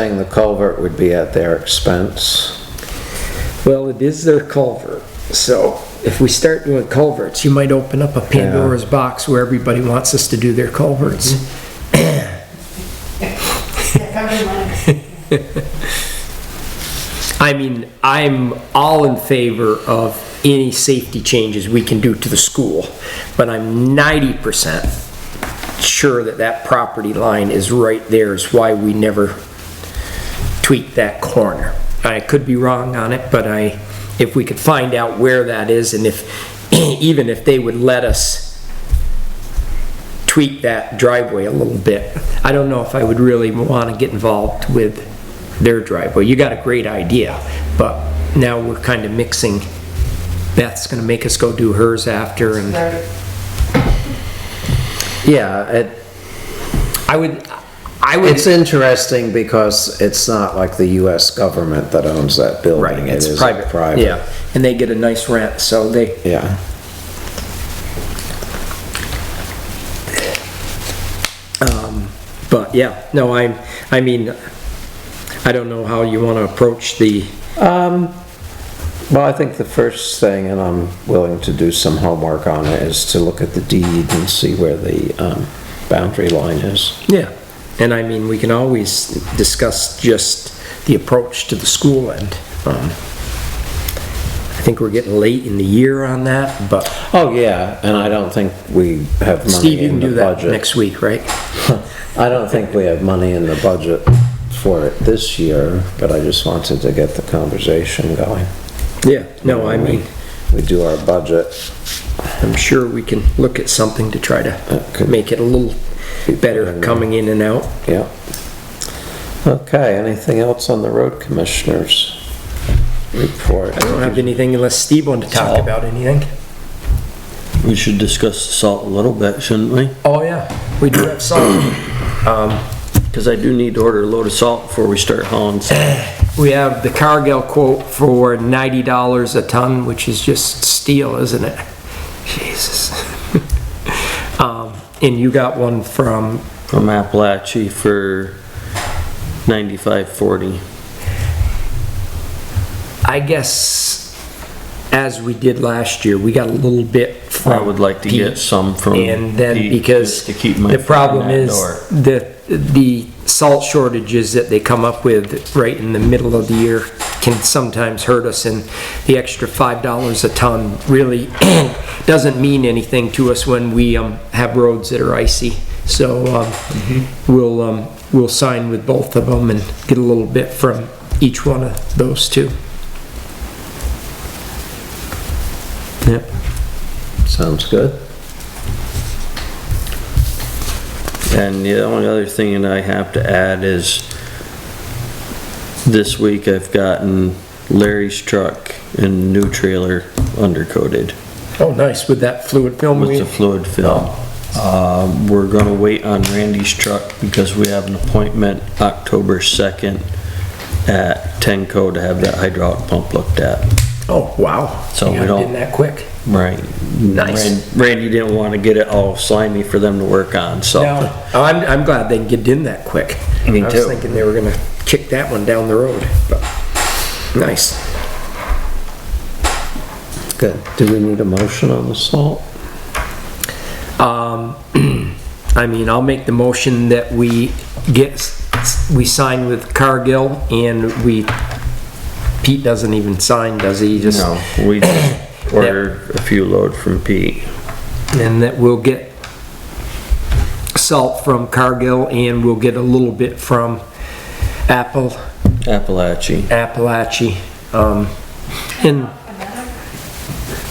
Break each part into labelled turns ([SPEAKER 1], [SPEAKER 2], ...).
[SPEAKER 1] Saying the culvert would be at their expense.
[SPEAKER 2] Well, it is their culvert, so if we start doing culverts, you might open up a Pandora's box where everybody wants us to do their culverts. I mean, I'm all in favor of any safety changes we can do to the school, but I'm ninety percent sure that that property line is right there is why we never tweak that corner. I could be wrong on it, but I, if we could find out where that is and if, even if they would let us tweak that driveway a little bit, I don't know if I would really want to get involved with their driveway. You got a great idea, but now we're kind of mixing. Beth's going to make us go do hers after and.
[SPEAKER 1] Yeah, it,
[SPEAKER 2] I would, I would,
[SPEAKER 1] it's interesting because it's not like the US government that owns that building.
[SPEAKER 2] right,
[SPEAKER 1] It
[SPEAKER 2] it's
[SPEAKER 1] is
[SPEAKER 2] private. Yeah, and they get a nice rent, so they,
[SPEAKER 1] Yeah.
[SPEAKER 2] um, but yeah, no, I'm, I mean, I don't know how you want to approach the,
[SPEAKER 1] Well, I think the first thing, and I'm willing to do some homework on it, is to look at the deed and see where the um, boundary line is.
[SPEAKER 2] yeah. And I mean, we can always discuss just the approach to the school end. Um, I think we're getting late in the year on that, but
[SPEAKER 1] Oh, yeah, and I don't think we have
[SPEAKER 2] Steve,
[SPEAKER 1] money
[SPEAKER 2] you can
[SPEAKER 1] in the
[SPEAKER 2] do that
[SPEAKER 1] budget.
[SPEAKER 2] next week, right?
[SPEAKER 1] I don't think we have money in the budget for it this year, but I just wanted to get the conversation going.
[SPEAKER 2] Yeah, no, I mean,
[SPEAKER 1] We do our budget,
[SPEAKER 2] I'm sure we can look at something to try to
[SPEAKER 1] Okay.
[SPEAKER 2] make it a little better coming in and out.
[SPEAKER 1] yeah. Okay, anything else on the road commissioners report?
[SPEAKER 2] I don't have anything unless Steve wanted to talk
[SPEAKER 3] Salt.
[SPEAKER 2] about anything.
[SPEAKER 3] We should discuss the salt a little bit, shouldn't we?
[SPEAKER 2] Oh, yeah, we do have salt.
[SPEAKER 3] Because I do need to order a load of salt before we start hauling salt.
[SPEAKER 2] We have the Cargill quote for ninety dollars a ton, which is just steel, isn't it? Jesus. Um, and you got one from,
[SPEAKER 3] From Appalachia for ninety-five forty.
[SPEAKER 2] I guess, as we did last year, we got a little bit from.
[SPEAKER 3] I would like to
[SPEAKER 2] Pete.
[SPEAKER 3] get some from.
[SPEAKER 2] And then
[SPEAKER 3] Pete,
[SPEAKER 2] because
[SPEAKER 3] just To keep my.
[SPEAKER 2] the problem
[SPEAKER 3] foot in
[SPEAKER 2] is
[SPEAKER 3] that door.
[SPEAKER 2] the, the salt shortages that they come up with right in the middle of the year can sometimes hurt us and the extra five dollars a ton really doesn't mean anything to us when we, um, have roads that are icy. So, um,
[SPEAKER 3] Mm-hmm.
[SPEAKER 2] we'll, um, we'll sign with both of them and get a little bit from each one of those two. Yep.
[SPEAKER 1] Sounds good.
[SPEAKER 3] And the only other thing that I have to add is this week I've gotten Larry's truck and new trailer undercoated.
[SPEAKER 2] Oh, nice, with that fluid film.
[SPEAKER 3] with
[SPEAKER 2] we-
[SPEAKER 3] the fluid fill. Uh, We're gonna wait on Randy's truck because we have an appointment October 2nd at Tenco to have that hydraulic pump looked at.
[SPEAKER 2] Oh, wow.
[SPEAKER 3] So
[SPEAKER 2] You
[SPEAKER 3] we
[SPEAKER 2] got it
[SPEAKER 3] don't-
[SPEAKER 2] In that quick.
[SPEAKER 3] Right.
[SPEAKER 2] Nice.
[SPEAKER 3] Ran- Randy didn't wanna get it all slimy for them to work on, so.
[SPEAKER 2] Now, I'm, I'm glad they can get in that quick.
[SPEAKER 3] Me
[SPEAKER 2] I was
[SPEAKER 3] too.
[SPEAKER 2] thinking they were gonna kick that one down the road, but, nice.
[SPEAKER 1] Good. Do we need a motion on the salt?
[SPEAKER 2] Um, I mean, I'll make the motion that we get, we sign with Cargill and we, Pete doesn't even sign, does he? He Just
[SPEAKER 3] No, we just ordered a few load from Pete.
[SPEAKER 2] And that we'll get salt from Cargill and we'll get a little bit from Apple,
[SPEAKER 3] Appalachia.
[SPEAKER 2] Appalachia, um, and,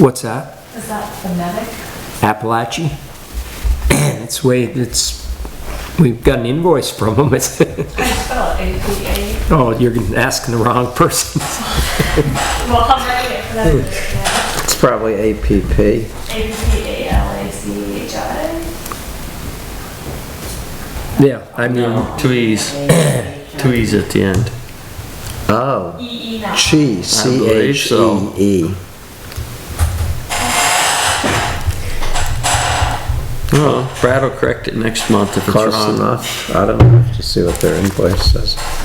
[SPEAKER 2] what's that?
[SPEAKER 4] Is that phonetic?
[SPEAKER 2] Appalachia. It's way, it's, we've got an invoice from them. It's,
[SPEAKER 4] I spell it APA.
[SPEAKER 2] oh, you're asking the wrong person.
[SPEAKER 4] Well, I'm writing it phonetically.
[SPEAKER 1] It's probably APP.
[SPEAKER 4] A P A L A C H I.
[SPEAKER 2] Yeah, I mean,
[SPEAKER 3] No, two E's, two E's at the end.
[SPEAKER 1] Oh,
[SPEAKER 4] E E now.
[SPEAKER 1] Chi,
[SPEAKER 3] I believe
[SPEAKER 1] E
[SPEAKER 3] so.
[SPEAKER 1] C-H-E-E.
[SPEAKER 3] Oh, Brad will correct it next month if it's
[SPEAKER 1] Close
[SPEAKER 3] wrong.
[SPEAKER 1] enough. I don't have to see what their invoice says.